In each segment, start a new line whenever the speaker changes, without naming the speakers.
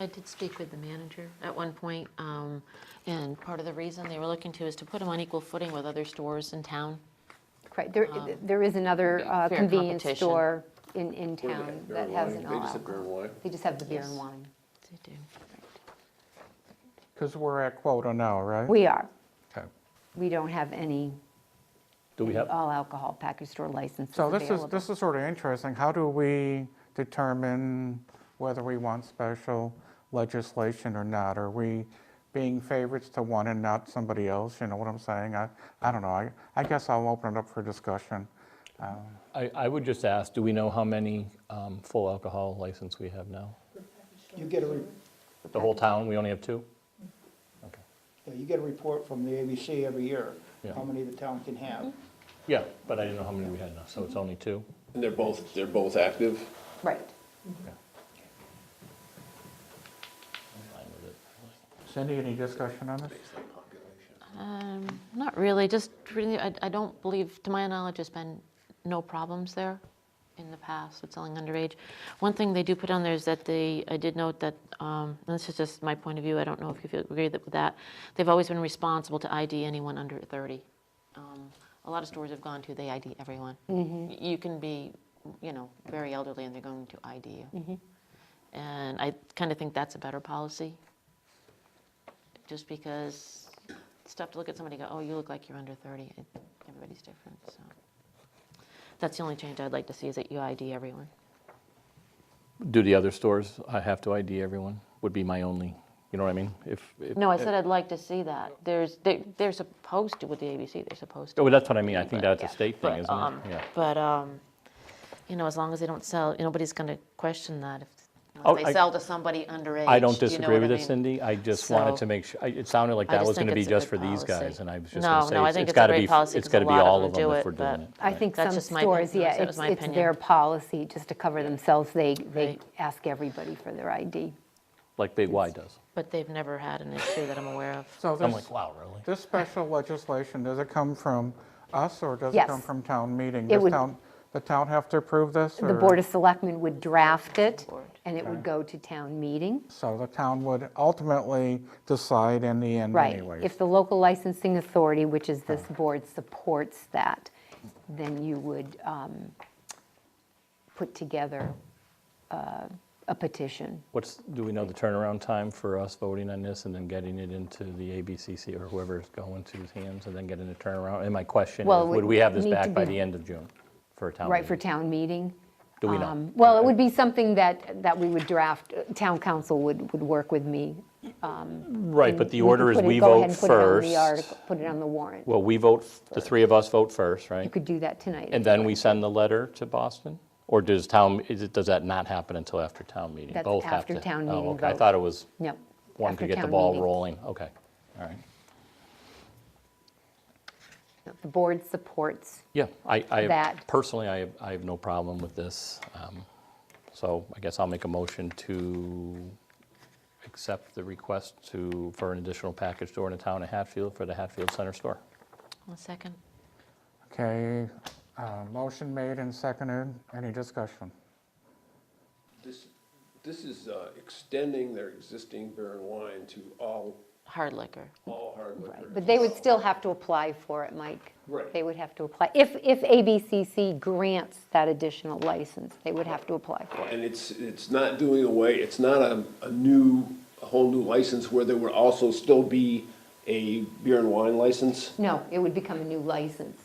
I did speak with the manager at one point, um, and part of the reason they were looking to is to put them on equal footing with other stores in town.
Right, there, there is another uh,
Um, fair
convenience
competition.
store in, in
Where they
town
have beer
that
and
has
wine?
an
They just have beer
all-alcohol.
and wine?
They just have the beer and
Yes.
wine.
They do.
Because we're at quota now, right?
We are,
Okay.
we don't have any
Do we have,
all-alcohol package store licenses
So this is,
available.
this is sort of interesting. How do we determine whether we want special legislation or not? Are we being favorites to one and not somebody else? You know what I'm saying? I, I don't know. I, I guess I'll open it up for discussion.
I, I would just ask, do we know how many um, full alcohol license we have now?
You get a, re-
The whole town, we only have two? Okay.
you get a report from the ABC every year,
Yeah.
how many the town can have.
Yeah, but I didn't know how many we had now, so it's only two?
And they're both, they're both active?
Right.
I'm fine with it.
Cindy, any discussion on this?
Um, Not really, just really, I I don't believe, to my knowledge, there's been no problems there in the past with selling underage. One thing they do put on there is that they, I did note that, um, and this is just my point of view, I don't know if you feel- agree that- with that, they've always been responsible to ID anyone under 30. Um, A lot of stores have gone to, they ID everyone. Y- You can be, you know, very elderly and they're going to ID you. And I kind of think that's a better policy just because it's tough to look at somebody and go, oh, you look like you're under 30. It- Everybody's different, so. That's the only change I'd like to see is that you ID everyone.
Do the other stores uh, have to ID everyone? Would be my only, you know what I mean? If, if-
No, I said I'd like to see that. There's, they- they're supposed to, with the ABC, they're supposed to.
Oh, that's what I mean, I think
But-
that's a state thing,
but,
isn't
um,
it? Yeah.
But, um, you know, as long as they don't sell, nobody's going to question that if
Oh,
unless
I-
they sell to somebody underage.
I don't
you know
disagree
what I
with it,
mean?
Cindy, I just wanted
So-
to make sure, I- it sounded like
I
that
just
was
think
gonna be
it's a
just for
good
these
policy.
guys, and I was just
No,
gonna say,
no, I
it's-
think
it's
it's a
gotta
great
be,
policy
it's
'cause
gotta
a
be
lot of
all
them
of them
do
if
it,
we're
but
doing it.
I
right.
think
That's
some
just my
stores,
opinion.
yeah,
That
it's,
was my
it's their
opinion.
policy, just to cover themselves, they, they
Right.
ask everybody for their ID.
Like Big Y does.
But they've never had an issue that I'm aware of.
So
I'm
this,
like, wow, really?
this special legislation, does it come from us or does it
Yes.
come from town meeting?
It
Does
would-
town, the town have to approve this?
The
or-
Board of Selectmen would draft it,
Board.
and it would go to town meeting.
So the town would ultimately decide in the end
Right.
anyways.
If the local licensing authority, which is this board, supports that, then you would um, put together uh, a petition.
What's, do we know the turnaround time for us voting on this and then getting it into the ABCC or whoever's going to's hands and then getting a turnaround? And my question
Well,
is,
it
would
would
we have this
need to
back by
be-
the end of June for a town
Right, for
meeting?
town meeting?
Do we know?
Um, Well, it
Okay.
would be something that, that we would draft, uh, town council would, would work with me.
Right, but
We
the
could
order is
put it-
we
go ahead
vote
and put it on the
first.
article- Put it on the warrant.
Well, we vote, the three of us vote first,
You
right?
could do that tonight.
And then we send the letter to Boston? Or does town, is it, does that not happen until after town meeting?
That's
Both have
after
to-
town
oh,
meeting
okay. I
vote.
thought it was,
No.
one
after
could get the
town
ball
meeting.
rolling. Okay, all right.
The board supports,
Yeah, I, I,
That-
personally, I, have- I have no problem with this. Um, So I guess I'll make a motion to accept the request to, for an additional package store in the town of Hatfield for the Hatfield Center store.
One second.
Okay, uh, motion made and seconded. Any discussion?
This, this is uh, extending their existing beer and wine to all,
Hard liquor.
all hard liquor.
but they would still have to apply for it, Mike.
Right.
They would have to apply, if, if ABCC grants that additional license, they would have to apply for it.
And it's, it's not doing away, it's not a, a new, a whole new license where there would also still be a beer and wine license.
No, it would become a new license.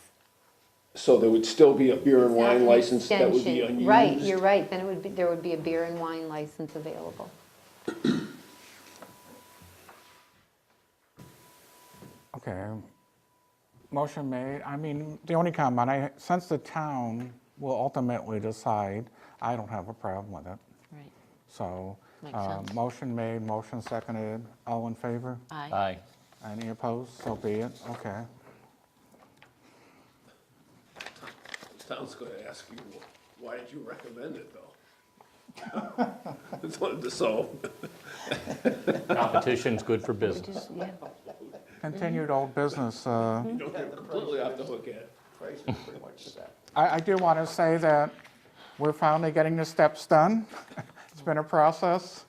So there would still be a beer and
That's
wine
an
license that would be
extension.
unused.
Right, you're right, then it would be, there would be a beer and wine license available.
Okay, motion made. I mean, the only comment, I, since the town will ultimately decide, I don't have a problem with it.
Right.
So,
Makes
uh,
sense.
motion made, motion seconded. All in favor?
Aye. Mm-hmm.
Aye.
Any opposed? So be it. Okay.
Town's gonna ask you, why did you recommend it though? It's one to solve.
Competition's good for business.
Yeah.
Continued old business. uh,
You don't get completely off the hook yet.
Price is pretty much set.
I, I do want to say that we're finally getting the steps done. It's been a process.